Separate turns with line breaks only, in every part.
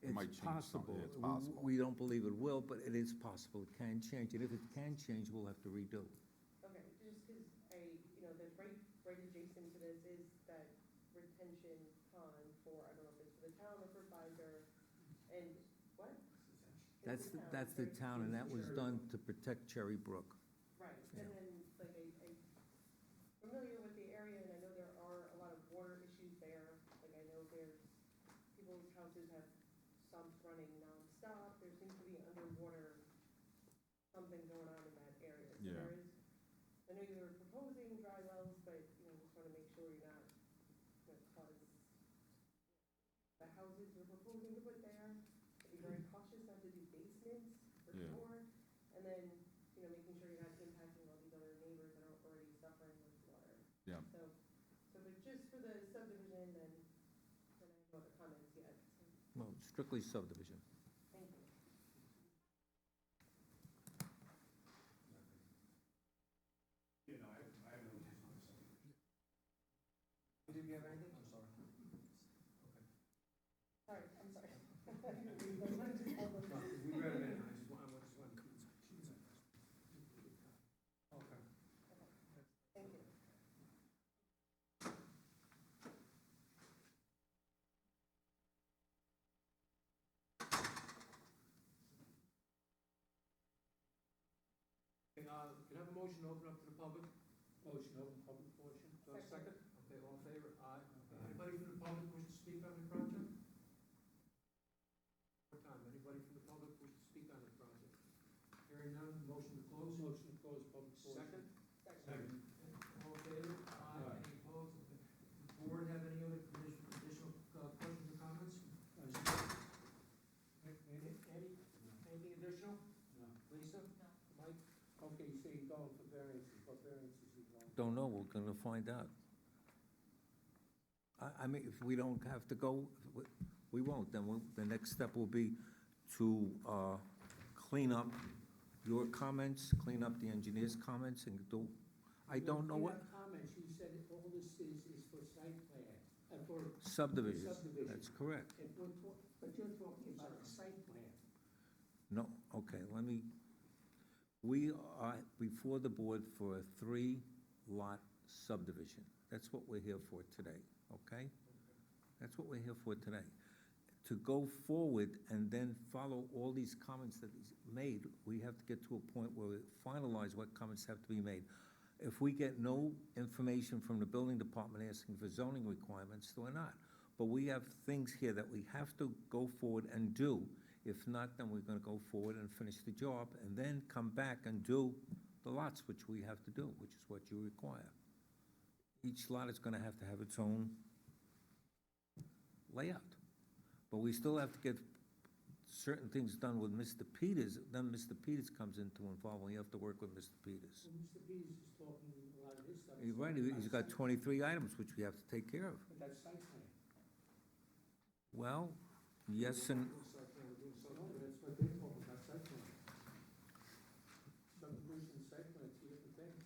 It might change
It's
some-
possible.
yeah, It's
We-
possible.
We don't believe it will, but it is possible. It can change. And if it can change, we'll have to redo.
Okay, just because I, you know, the right, right adjacent to this is that retention pond for, I don't know if it's for the town or for Pfizer, and what? It's
That's,
the town,
that's the
right.
town, and that was done to protect Cherry Brook.
Right,
Yeah.
and then, like, I, I'm familiar with the area, and I know there are a lot of water issues there, like, I know there's, people's houses have sumps running nonstop, there seems to be underwater, something going on in that area. So
Yeah.
there is- I know you were proposing dry wells, but, you know, just wanna make sure you're not, you know, cause the houses you're proposing to put there, be very cautious not to do basements, for
Mm-hmm. Yeah.
sure, and then you know, making sure you're not impacting all these other neighbors that are already suffering with water.
Yeah.
So, so but just for the subdivision, then, then I have no other comments yet, so,
Well, strictly subdivision.
thank you.
You know, I, I have no intention of saying.
Did you have anything? I'm sorry.
Sorry, I'm sorry.
We read it, in, I just want, I just want. uh, Okay.
Thank you.
Can, uh, can I have a motion to open up to the public? Motion, open public portion. Do I have a second? Okay, all in favor? Aye. Anybody from the public wish to speak on the project? One time, anybody from the public wish to speak on the project? Hearing none, motion to close? Motion to close public portion. Second?
Second.
All in favor? Aye. Any opposed? Does the Board have any other condition- additional uh, questions or comments? Any, any- anything additional? No. Lisa?
No.
Mike? Okay, you say you're going for variances, what variances you want?
Don't know, we're gonna find out. I, I mean, if we don't have to go, we- we won't, then we'll, the next step will be to, uh, clean up your comments, clean up the engineer's comments and do, I don't know what,
Comments, you said all this is, is for site plan, uh, for
subdivision,
subdivision.
that's correct.
If we're talk- But you're talking about a site plan.
No, okay, let me, we are before the board for a three-lot subdivision. That's what we're here for today, okay? That's what we're here for today. To go forward and then follow all these comments that he's made, we have to get to a point where we finalize what comments have to be made. If we get no information from the building department asking for zoning requirements, then we're not. But we have things here that we have to go forward and do. If not, then we're gonna go forward and finish the job, and then come back and do the lots, which we have to do, which is what you require. Each lot is gonna have to have its own layout. But we still have to get certain things done with Mr. Peters, then Mr. Peters comes into involvement, we have to work with Mr. Peters.
Well, Mr. Peters is talking a lot of this stuff.
He's right, he's got twenty-three items which we have to take care of.
But that's site plan.
Well, yes and,
Site plan, we're doing site plan, that's what they talk about, site plan. Subdivision, site plan, two different things.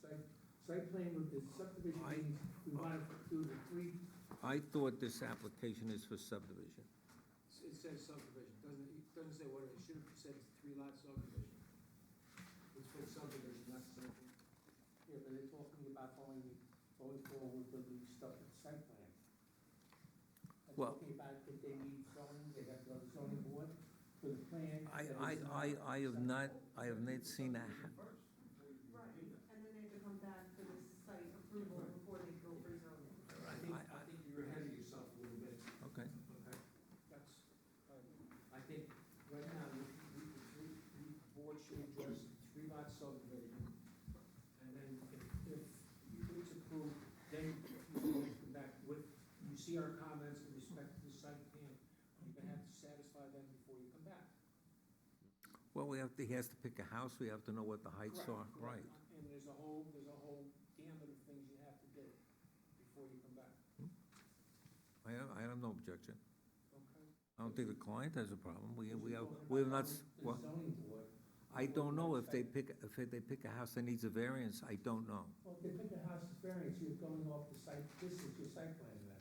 Site, site plan with the subdivision
I-
means we want to do the three.
I thought this application is for subdivision.
It says subdivision, doesn't, it doesn't say what, it should have said three lot subdivision. It's for subdivision, not subdivision. Yeah, but they're talking about going, going forward with the stuff at site plan. They're
Well-
Talking about that they need zoning, they have to go to zoning board for the plan.
I,
that
I,
is
I, I have not, I have not seen a, ha-
Right, and then they have to come back for this site approval before they go for zoning.
I think, I think you're ahead of yourself a little bit,
okay.
okay? That's, um, I think right now, we, we, we, we the board should address three lot subdivision. And then if, if it's approved, then you can come back with, you see our comments in respect to the site plan. You're gonna have to satisfy them before you come back.
Well, we have to, he has to pick a house, we have to know what the heights are,
Correct,
right.
correct. And there's a whole, there's a whole gamut of things you have to do before you come back,
I have, I have no objection.
okay?
I don't think the client has a problem, we, we have,
Because you're
we have not,
talking about
s-
the
well,
zoning board.
I don't know if they pick, if they pick a house that needs a variance, I don't know.
Well, if they pick a house variance, you're going off the site, this is your site plan